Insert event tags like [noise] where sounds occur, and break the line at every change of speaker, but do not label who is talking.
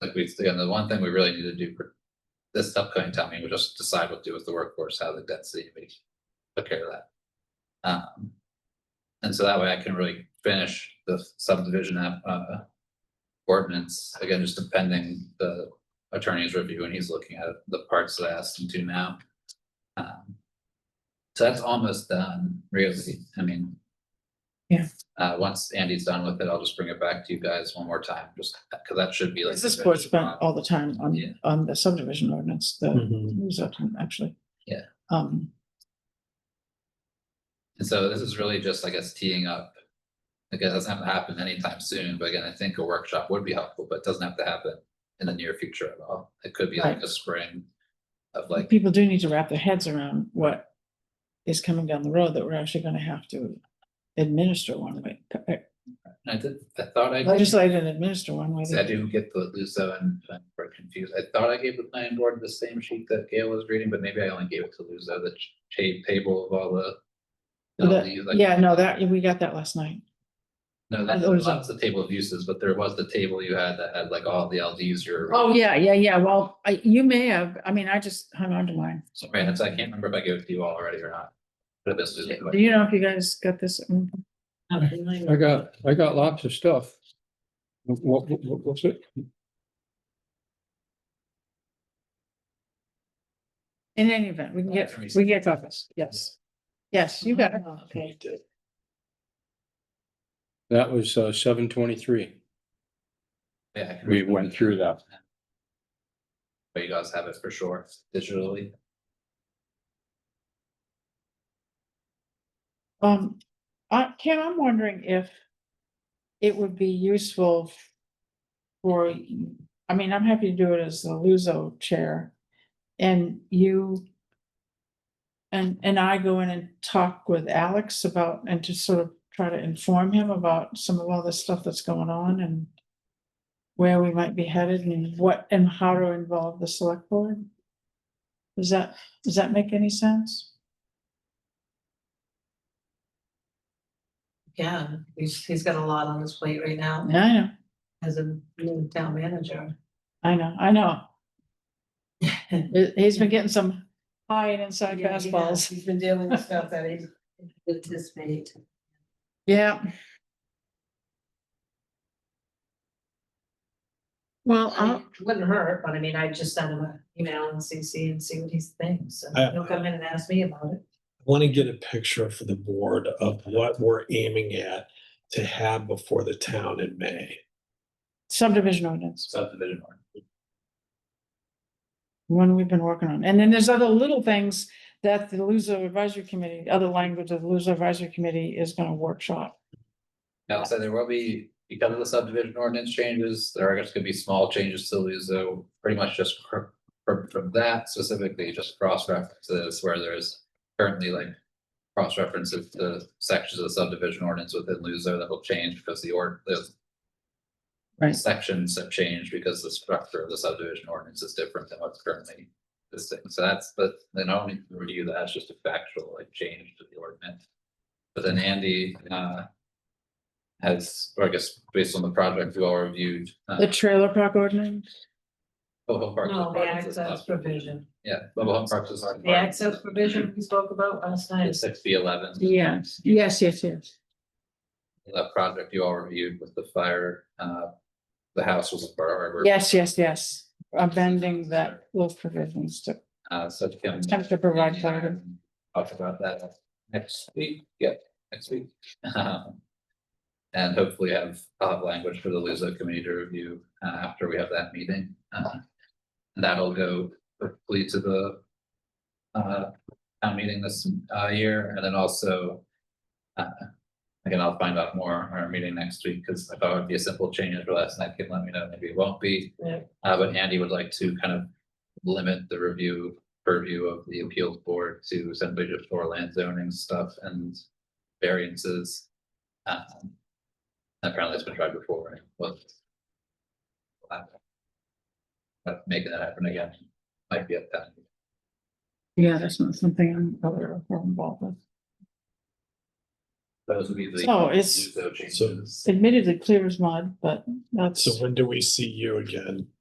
think we, again, the one thing we really need to do for this upcoming town meeting, we just decide what to do with the workforce, how the density, we took care of that. Um, and so that way I can really finish the subdivision app, uh, ordinance, again, just depending the attorney's review and he's looking at the parts that I asked him to now. Um, So that's almost done, really, I mean.
Yeah.
Uh, once Andy's done with it, I'll just bring it back to you guys one more time, just, cause that should be like.
This board spent all the time on,
Yeah.
on the subdivision ordinance, the zoning, actually.
Yeah.
Um,
And so this is really just, I guess, teeing up. Again, it doesn't have to happen anytime soon, but again, I think a workshop would be helpful, but it doesn't have to happen in the near future at all. It could be like
Right.
a spring of like,
people do need to wrap their heads around what is coming down the road that we're actually gonna have to administer one way, uh,
I did, I thought I.
legislate and administer one way.
See, I didn't get the Luso and I'm very confused. I thought I gave the planning board the same sheet that Gail was reading, but maybe I only gave it to Luso, the ta- table of all the.
Well, that-
all the, like-
Yeah, no, that, we got that last night.
No, that
that was-
that's the table of uses, but there was the table you had that had like all the LDs you're.
Oh, yeah, yeah, yeah. Well, I, you may have, I mean, I just hung on to mine.
So, right, and so I can't remember if I gave it to you all already or not. But this is.
Do you know if you guys got this? Mm.
I got, I got lots of stuff. What, what, what- what's it?
In any event, we can get, we get copies, yes. Yes, you got it. Oh, Okay.
That was uh, seven twenty-three.
Yeah, I can
We
remember.
went through that.
But you guys have it for sure digitally.
Um, uh, Kim, I'm wondering if it would be useful for, I mean, I'm happy to do it as the Luso Chair. And you and, and I go in and talk with Alex about, and to sort of try to inform him about some of all the stuff that's going on and where we might be headed and what, and how to involve the select board. Does that, does that make any sense?
Yeah, he's, he's got a lot on his plate right now
Yeah, I know.
as a new town manager.
I know, I [laughs] know. He- He's been getting some high and inside
Yeah, he has.
fastballs.
He's been dealing with stuff that he didn't anticipate.
Yeah. Well,
I
I'll,
mean, it Wouldn't hurt, but I mean, I just send him an email and CC and see what he thinks.
I-
And He'll come in and ask me about it.
want to get a picture for the board of what we're aiming at to have before the town in May.
subdivision ordinance,
subdivision or
one we've been working on. And then there's other little things that the Luso Advisory Committee, other language of the Luso Advisory Committee is gonna workshop.
Now, so there will be, because of the subdivision ordinance changes, there are just gonna be small changes to these, so pretty much just cr- from, from that specifically, just cross references where there's currently like cross references to sections of the subdivision ordinance within Luso that will change because the ord, the
Right.
sections have changed because the structure of the subdivision ordinance is different than what's currently existing. So that's, but then I don't need to review that, it's just a factual like change to the ordinance. But then Andy, uh, has, or I guess based on the project we all reviewed. uh,
The trailer park ordinance,
Mobile Home Parks is
No, the
part of this
access
stuff.
provision,
Yeah, mobile home parks is.
the access provision we spoke about last night.
Six B eleven.
yes, yes, yes, yes.
That project you all reviewed with the fire, uh, the house was a bar.
Yes, yes, yes, amending that, those provisions to,
Uh, so Kim.
attempt to provide clarity.
Talk about that next week, yeah, next week. [laughs] Um, And hopefully have, I'll have language for the Luso committee to review uh, after we have that meeting. Uh, and That'll go hopefully to the uh, town meeting this uh, year and then also uh, again, I'll find out more on our meeting next week because I thought it would be a simple change, but last night Kim let me know, maybe it won't be.
Yeah.
Uh, But Andy would like to kind of limit the review purview of the appeals board to essentially just for land zoning stuff and variances. Um, Apparently it's been tried before, right? Well, But making that happen again might be at that.
Yeah, that's not something I'm aware of or involved with.
Those would be the.
So it's-
Luso changes.
Admittedly clear as mud, but that's.
So when do we see you again?